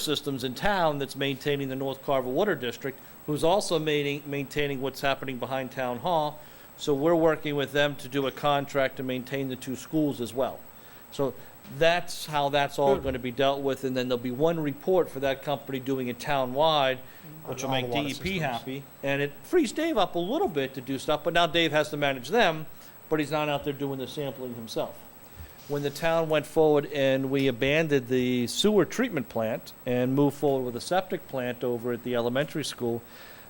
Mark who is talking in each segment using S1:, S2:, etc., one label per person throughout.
S1: systems in town that's maintaining the North Carver Water District, who's also maintaining, maintaining what's happening behind Town Hall. So we're working with them to do a contract to maintain the two schools as well. So that's how that's all gonna be dealt with, and then there'll be one report for that company doing it town-wide, which will
S2: Mm. On all
S1: make
S2: the water
S1: DEP
S2: systems.
S1: happy. And it frees Dave up a little bit to do stuff, but now Dave has to manage them, but he's not out there doing the sampling himself when the town went forward and we abandoned the sewer treatment plant and moved forward with a septic plant over at the elementary school,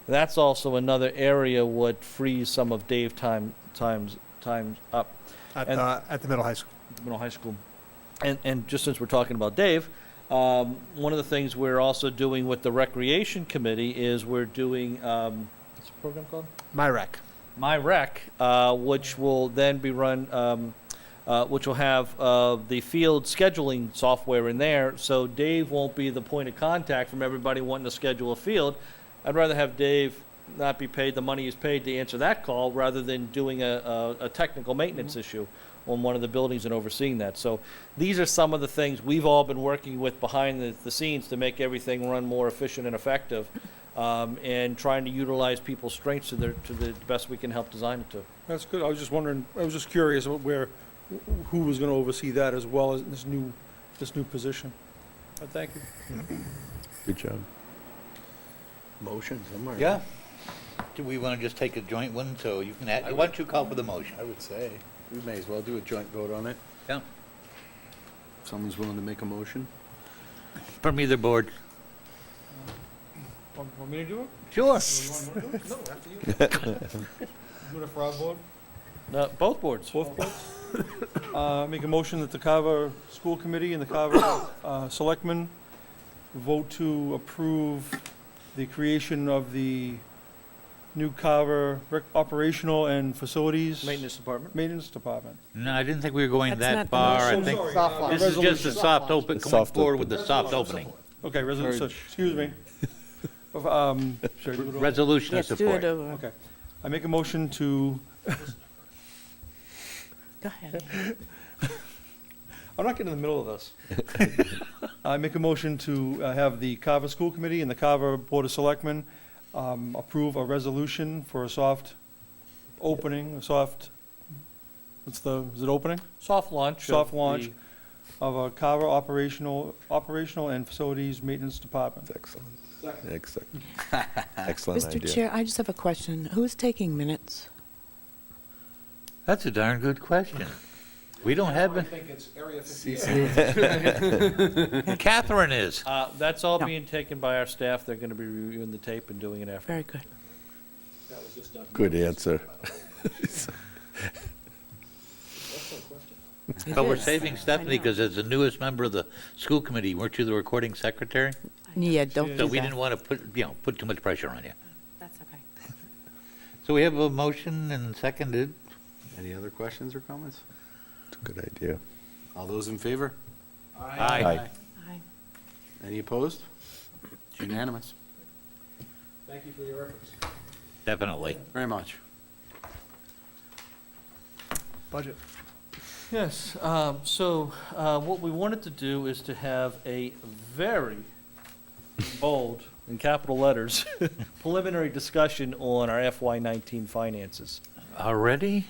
S1: that's also another area what frees some of Dave time, times, times up
S2: At,
S1: And-
S2: uh, at the middle high school.
S1: at the middle high school. And, and just since we're talking about Dave, um, one of the things we're also doing with the recreation committee is we're doing, um, what's the program called?
S2: My rec.
S1: My Rec, uh, which will then be run, um, uh, which will have uh, the field scheduling software in there. So Dave won't be the point of contact from everybody wanting to schedule a field. I'd rather have Dave not be paid the money he's paid to answer that call rather than doing a, a, a technical maintenance issue on one of the buildings and overseeing that. So these are some of the things we've all been working with behind the, the scenes to make everything run more efficient and effective um, and trying to utilize people's strengths to their, to the best we can help design it to.
S3: That's good. I was just wondering, I was just curious about where, wh- who was going to oversee that as well as this new, this new position. But Uh, thank you.
S4: Good job. Motion somewhere.
S5: Yeah. Do we want to just take a joint one, so you can, add- why don't you call for the motion?
S4: I would say, we may as well do a joint vote on it.
S5: Yeah.
S4: If someone's willing to make a motion.
S5: From either board.
S3: Want want me to do it?
S5: Sure.
S3: No, after you. Do it for our board? Oh.
S1: No, both boards.
S3: Both boards? Uh, Make a motion that the Carver School Committee and the Carver uh, Selectmen vote to approve the creation of the new Carver rec- operational and facilities.
S1: Maintenance department.
S3: Maintenance Department.
S5: No, I didn't think we were going
S6: That's
S5: that
S6: not the
S5: far. I
S3: motion.
S5: think
S3: Sorry, Soft uh,
S5: this is just a
S3: resolution.
S5: soft open,
S7: Soft
S5: coming
S7: open.
S5: forward with the soft opening.
S3: Okay, resolution,
S4: Urge.
S3: excuse me. Of, um, should I do it all?
S5: Resolution of
S6: Let's do
S5: support.
S6: it over.
S3: Okay. I make a motion to,
S6: Go ahead.
S3: I'm not getting in the middle of this. I make a motion to uh, have the Carver School Committee and the Carver Board of Selectmen um, approve a resolution for a soft opening, a soft, what's the, is it opening?
S1: Soft launch. of
S3: Soft launch
S1: the-
S3: of a Carver operational, operational and facilities maintenance department.
S7: Excellent. Excellent. Excellent
S6: Mr.
S7: idea.
S6: Chair, I just have a question. Who's taking minutes?
S5: That's a darn good question. We don't have, it. Catherine is.
S1: Uh, that's all
S6: No.
S1: being taken by our staff. They're gonna be reviewing the tape and doing it after.
S6: Very good.
S7: Good answer.
S6: It
S5: But we're
S6: is.
S5: saving Stephanie
S6: know.
S5: because as the newest member of the school committee, weren't you the recording secretary?
S6: Yeah, don't
S5: So
S6: do
S5: we didn't
S6: that.
S5: want to put, you know, put too much pressure on you.
S6: That's okay.
S5: So we have a motion and seconded.
S4: Any other questions or comments?
S7: It's a good idea.
S4: All those in favor?
S5: Aye.
S6: Aye.
S4: Any opposed? It's Unanimous.
S5: Definitely.
S4: Very much.
S2: Budget.
S1: Yes, um, so, uh, what we wanted to do is to have a very bold, in capital letters, preliminary discussion on our FY nineteen finances.
S5: Already?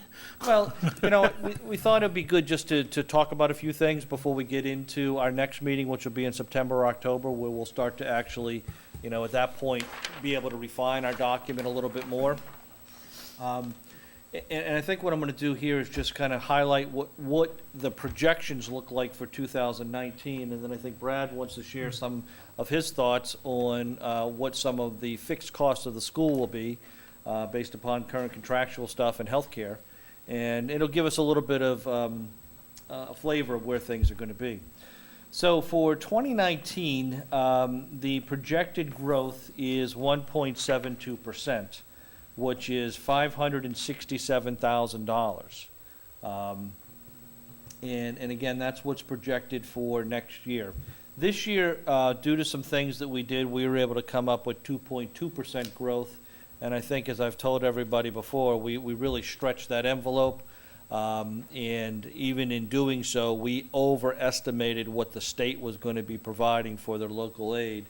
S1: Well, you know, we, we thought it'd be good just to, to talk about a few things before we get into our next meeting, which will be in September or October, where we'll start to actually, you know, at that point, be able to refine our document a little bit more. Um, a- And, and I think what I'm gonna do here is just kind of highlight what, what the projections look like for 2019, and then I think Brad wants to share some of his thoughts on uh, what some of the fixed costs of the school will be, uh, based upon current contractual stuff and healthcare. And it'll give us a little bit of um, uh, flavor of where things are gonna be. So for 2019, um, the projected growth is 1.72%, which is $567,000. Um, And, and again, that's what's projected for next year. This year, uh, due to some things that we did, we were able to come up with 2.2% growth. And I think, as I've told everybody before, we, we really stretched that envelope. Um, And even in doing so, we overestimated what the state was going to be providing for their local aid.